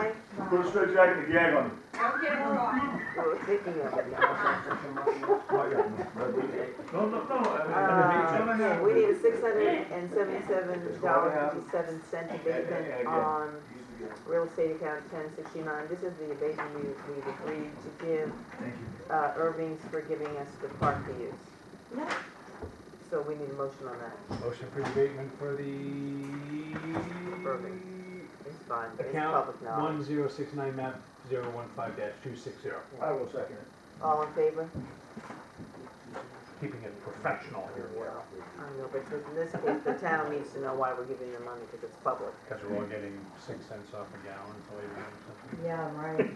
Put a straight jacket and a gag on him. I'm getting her off. No, no, no, I mean, I mean, Uh, We need a six hundred and seventy-seven dollars fifty-seven cent abatement on real estate account ten sixty-nine. This is the abatement we, we agreed to give, uh, Irving's for giving us the park to use. So we need a motion on that. Motion for abatement for the It's fine, it's public account knowledge. one zero six nine map zero one five dash two six zero. I will second it. All in favor? Keeping it professional here, I don't know, but in this case, the town needs to know why we're giving the money, because it's public. because we're all getting six cents off a gallon, so maybe something. Yeah, right.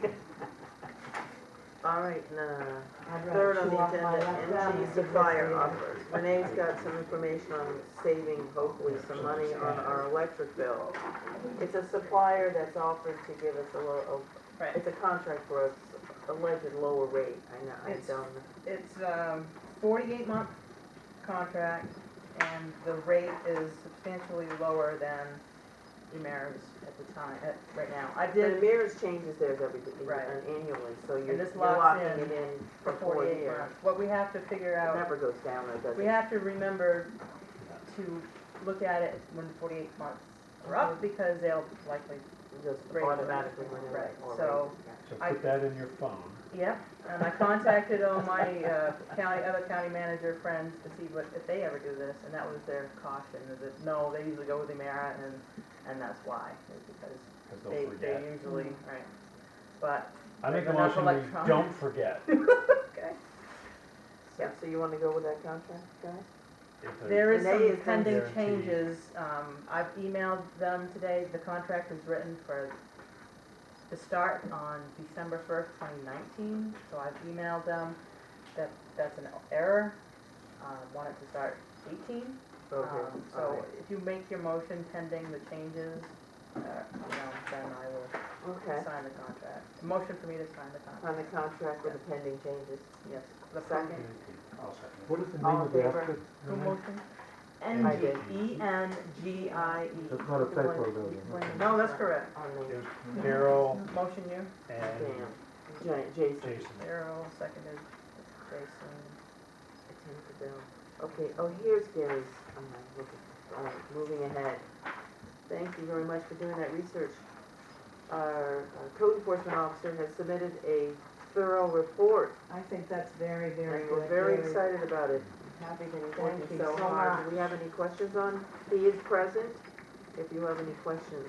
All right, no, no, no. I'd rather Third on chew the off my agenda, left thumb energy than supplier this offers. Renee's got some information on saving, hopefully, some money on our electric bill. It's a supplier that's offered to give us a low, Right. it's a contract for us, alleged lower rate, I know, I It's- don't know. It's a forty-eight month contract and the rate is substantially lower than Emera's at the time, at, right now. I The did mirrors changes theirs every, Right. uh, annually, so you're this you're locks locking in it in for forty-eight months. What we have to figure It out, never goes down, though, does it? we have to remember to look at it when the forty-eight months are Mm-hmm. up because they'll likely, It Just Right. automatically went in. Right, or- so- So I- put that in your phone. yep. And I contacted all my uh, county, other county manager friends to see what, if they ever do this, and that was their caution, is that, no, they usually go with Emera and, and that's why, is because Because They, they'll they forget. usually, right, but, I make a enough motion, we electronic. don't forget. okay. Yeah, so you wanna go with that contract, guys? If there's- There is Renee is some gonna pending guarantee- changes, um, I've emailed them today, the contract is written for, to start on December first, twenty nineteen, so I've emailed them that that's an error, uh, want it to start eighteen. Okay, Um, all So right. if you make your motion pending the changes, uh, you know, then I will Okay, sign the contract. Motion for me to sign the contract, on the contract with the pending changes. yes, the Uh, Second. second. I'll second it. What is the name All in of the favor? outfit? Who Mm-hmm. motion? I did. E N G I E. That's not a typo though. then. No, that's correct. On It the, was Carol Motion you, and damn, Jan- Jason. Jason. Carol, seconded, Jason. attend the bill. Okay, oh, here's Gary's, um, look at- all right, moving ahead. Thank you very much for doing that research. Our our code enforcement officer has submitted a thorough report, I think that's very, very and good. we're very excited about it. Happy to He's thank working you so so hard. Do much. we have any questions on, he is present, if you have any questions.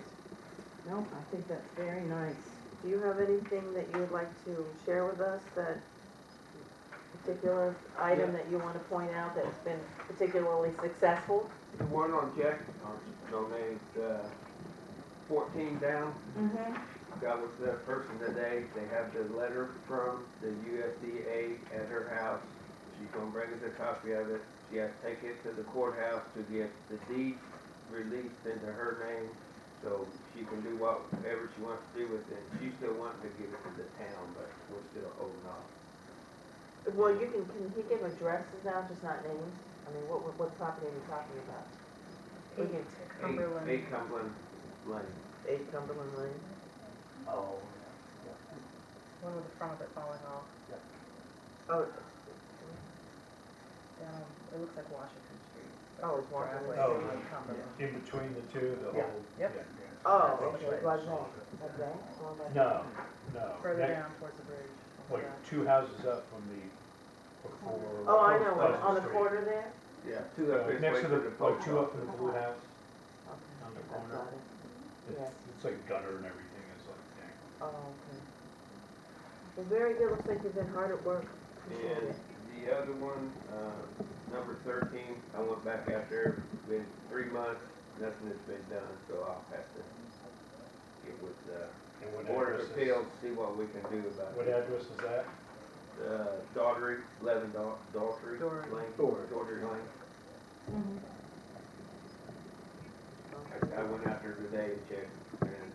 No, I think that's very nice. Do you have anything that you would like to share with us, that particular item that you want to point out that's been particularly successful? The one on Jack, on, on a, uh, fourteen down, Mm-hmm. that was the person today, they have the letter from the USDA at her house. She's gonna bring us a copy of it, she has to take it to the courthouse to get the deed released into her name, so she can do whatever she wants to do with it. She still wants to give it to the town, but we're still holding off. Well, you can, can he give addresses now, just not names? I mean, what, what- what property are we talking about? We can, Eight- Cumberland. Eight Cumberland Lane. eight Cumberland Lane, Oh, One with the front of it falling off, oh, down, it looks like Washington Street. Oh, it's Washington. Driveway Oh, on Cumberland. in between the two, the Yeah. whole. Yep. yeah, yeah. oh, That's okay, right. by that, like that, all that. No, no. Further That- down towards the bridge. Like, Yeah. two houses up from the, before. Oh, I know, Pleasant on the Street. corner there? Yeah, two Uh, up this Next way to to the, the like, post two office. up in the Uh-huh. blue house, Okay, on the I corner. got it. It's, Yes. it's like gutter and everything, it's like, dang. Oh, okay. Well, very good, looks like you've been hard at work. Appreciate And it. the other one, uh, number thirteen, I went back out there, been three months, nothing has been done, so I'll have to get with the And what Board address of is- Appeals, see what we can do about What it. address is that? Uh, Daughtry, eleven Dau- Daughtry Daughtry. Lane, Daughtry. Daughtry Lane. Okay. I, I went out there today and checked, and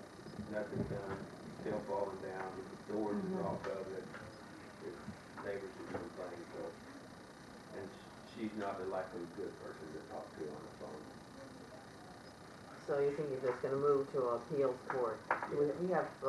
nothing done, still falling down, doors is off of it. The Neighbors are complaining, so, and sh- she's not a likely good person to talk to on the phone. So you think you're just gonna move to appeals court? We, we have